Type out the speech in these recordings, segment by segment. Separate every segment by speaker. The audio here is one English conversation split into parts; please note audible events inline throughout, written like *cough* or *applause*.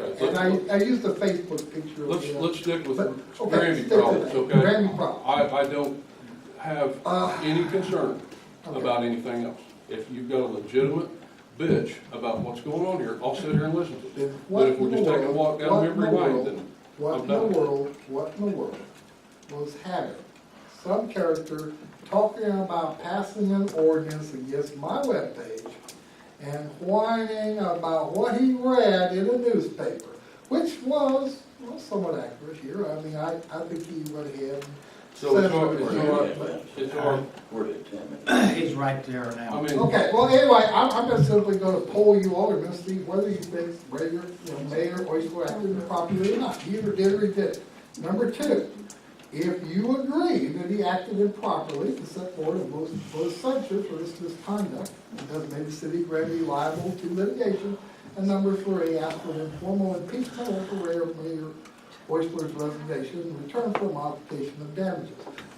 Speaker 1: And I, I used the Facebook picture. of
Speaker 2: Let's,
Speaker 1: the-
Speaker 2: let's stick with
Speaker 1: But, okay,
Speaker 2: Grammy
Speaker 1: stick to
Speaker 2: problems,
Speaker 1: that.
Speaker 2: okay?
Speaker 1: Grammy problems.
Speaker 2: I, I don't have
Speaker 1: Ah.
Speaker 2: any concern
Speaker 1: Okay.
Speaker 2: about anything else. If you've got a legitimate bitch about what's going on here, I'll sit here and listen to
Speaker 1: Then
Speaker 2: it.
Speaker 1: what
Speaker 2: But if we're
Speaker 1: in
Speaker 2: just
Speaker 1: the
Speaker 2: taking a
Speaker 1: world-
Speaker 2: walk down
Speaker 1: what in
Speaker 2: memory
Speaker 1: the
Speaker 2: lane,
Speaker 1: world-
Speaker 2: then
Speaker 1: What
Speaker 2: I'm
Speaker 1: in the
Speaker 2: done.
Speaker 1: world, what in the world was having some character talking about passing an ordinance against my webpage and whining about what he read in a newspaper, which was, well, somewhat accurate here. I mean, I, I think he went ahead and
Speaker 2: So it's
Speaker 1: said
Speaker 2: all-
Speaker 1: what he
Speaker 2: it's
Speaker 1: read,
Speaker 2: all right.
Speaker 1: but-
Speaker 2: it's our,
Speaker 3: We're at ten minutes.
Speaker 4: He's right there
Speaker 2: I
Speaker 4: now.
Speaker 2: mean.
Speaker 1: Okay, well, anyway, I'm, I'm just simply gonna poll you all and see whether you think Rager, you know, Mayor Oyster acted properly or not. He Either did or he did. Number two, if you agree that he acted improperly to set forward a most, most censure for this misconduct, and does make the city Granby liable to litigation. And number three, ask for an informal impeachment or for Mayor- Mayor Oyster's resignation in return for modification of damages.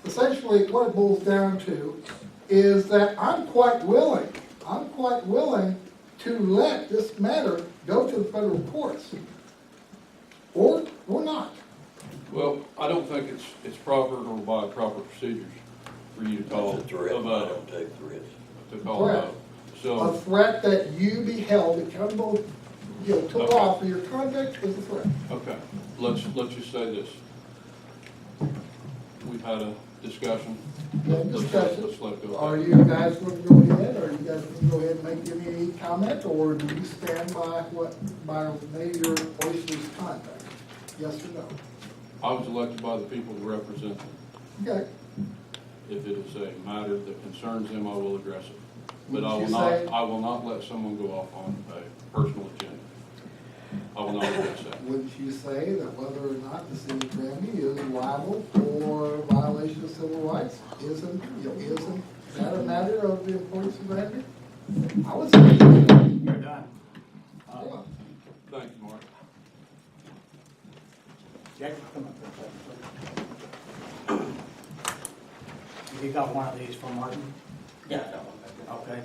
Speaker 1: Essentially, what it boils down to is that I'm quite willing, I'm quite willing to let this matter go to the federal courts. Or, or not.
Speaker 2: Well, I don't think it's, it's proper or by proper procedures for you to call
Speaker 3: That's a threat, I
Speaker 2: about,
Speaker 3: don't take threats.
Speaker 2: to call
Speaker 1: Correct.
Speaker 2: about.
Speaker 1: A
Speaker 2: So,
Speaker 1: threat that you be held accountable, you know, to law for your conduct is a threat.
Speaker 2: okay, let's, let's just say this. We've had a discussion.
Speaker 1: No
Speaker 2: Let's-
Speaker 1: discussion.
Speaker 2: let's let it go.
Speaker 1: Are you guys gonna go ahead, are you guys gonna go ahead and make any comment, or do you stand by what, by Mayor Oyster's conduct? Yes or no?
Speaker 2: I was elected by the people to represent them.
Speaker 1: Okay.
Speaker 2: If it is a matter that concerns them, I will address it. But I will
Speaker 1: Would you
Speaker 2: not,
Speaker 1: say-
Speaker 2: I will not let someone go off on a personal agenda. I will not address that.
Speaker 1: Wouldn't you say that whether or not the city of Granby is liable for violation of civil rights, isn't, you know, isn't that a matter of the importance of Granby? I would say,
Speaker 4: You're done. Uh,
Speaker 1: yeah.
Speaker 2: Thank you, Mark.
Speaker 4: Jack, come up here a second, please. You got one of these for Martin?
Speaker 3: Yeah, I don't want that.
Speaker 4: Okay.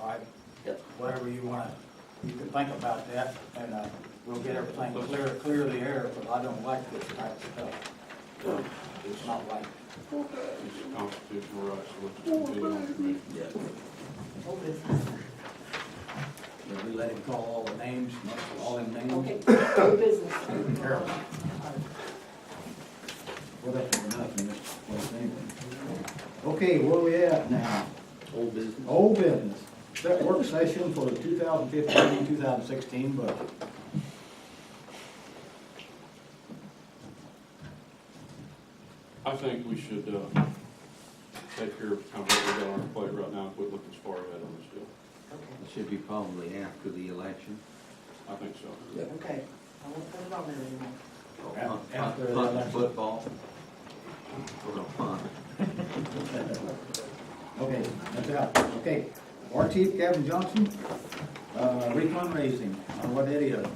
Speaker 4: All right,
Speaker 3: Yep.
Speaker 4: whatever you want to, you can think about that, and uh, we'll get everything clear, clear the air, but I don't like this type of stuff. It's not right.
Speaker 2: It's a constitutional right, so let's continue on the meeting.
Speaker 3: Yeah.
Speaker 4: If We let him call all the names, all them
Speaker 5: Okay,
Speaker 4: names.
Speaker 5: *coughs* new business.
Speaker 4: Terrible.
Speaker 6: Well, that's enough in this place anyway. Okay, where we at now?
Speaker 3: Old business.
Speaker 6: Old business. Set work session for the 2015 and 2016 budget.
Speaker 2: I think we should, uh, take care of kind of what we got on our plate right now, and quit looking as far ahead on this deal.
Speaker 7: It should be probably after the election.
Speaker 2: I think so.
Speaker 3: Yeah.
Speaker 5: Okay, I won't put it on there anymore.
Speaker 4: Yeah, after the
Speaker 7: Punt
Speaker 4: election.
Speaker 7: Football. We're gonna punt.
Speaker 6: Okay, that's out. Okay. Our chief, Kevin Johnson, uh, re-fundraising, Uh, what idiot?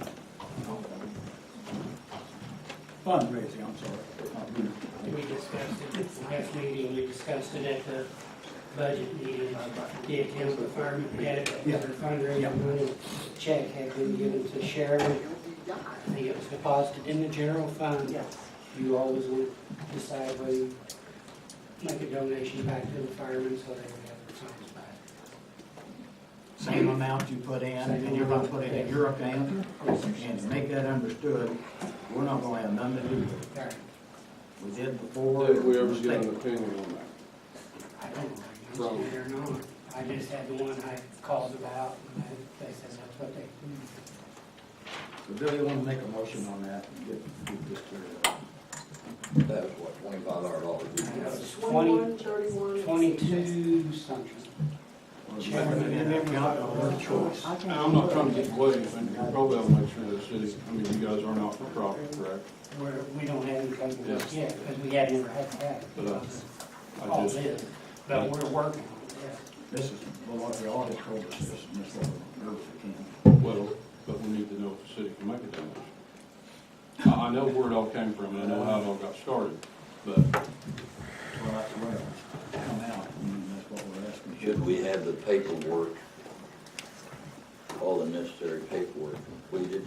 Speaker 6: Fundraising, I'm sorry. Not re-
Speaker 8: We discussed it at the last meeting, we discussed it at the budget meeting. The account department had
Speaker 6: Yeah.
Speaker 8: their fundraising money, check had been given to Sharon. I think it was deposited in the general fund.
Speaker 5: Yes.
Speaker 8: You always would decide whether you make a donation back to the firemen so they would have their funds back.
Speaker 6: Same amount you put in, and you're gonna put it in your account, and to make that understood, we're not gonna have nothing to do with it.
Speaker 8: All right.
Speaker 6: We did before.
Speaker 2: Did we ever
Speaker 6: Mistake.
Speaker 2: get an opinion on that?
Speaker 8: I don't know, if I understand it or not. I just had the one I called about and I- they said that's what they
Speaker 6: So Billy, you wanna make a motion on that, and get, get this cleared up?
Speaker 3: That was what, twenty-five hundred dollars we got.
Speaker 8: It's
Speaker 5: 21, 31.
Speaker 8: 22 something.
Speaker 6: Or is
Speaker 8: Chairman,
Speaker 6: that an account or a choice?
Speaker 5: I can't-
Speaker 2: And I'm not trying to get away, but probably I'll make sure the city, I mean, you guys are not for profit, correct?
Speaker 8: We're, we don't have any company yet, because we had never had that.
Speaker 2: But, uh, I
Speaker 8: All
Speaker 2: just-
Speaker 8: this, but we're working on it, yeah.
Speaker 6: This is, well, what the audit told us, this, and this is what we're, we
Speaker 2: Well, but we need to know if the city can make a donation. I, I know where it all came from, and I know how it all got started, but
Speaker 6: can. Well, that's where it's come out, and that's what we're asking.
Speaker 3: Should we have the paperwork, all the necessary paperwork completed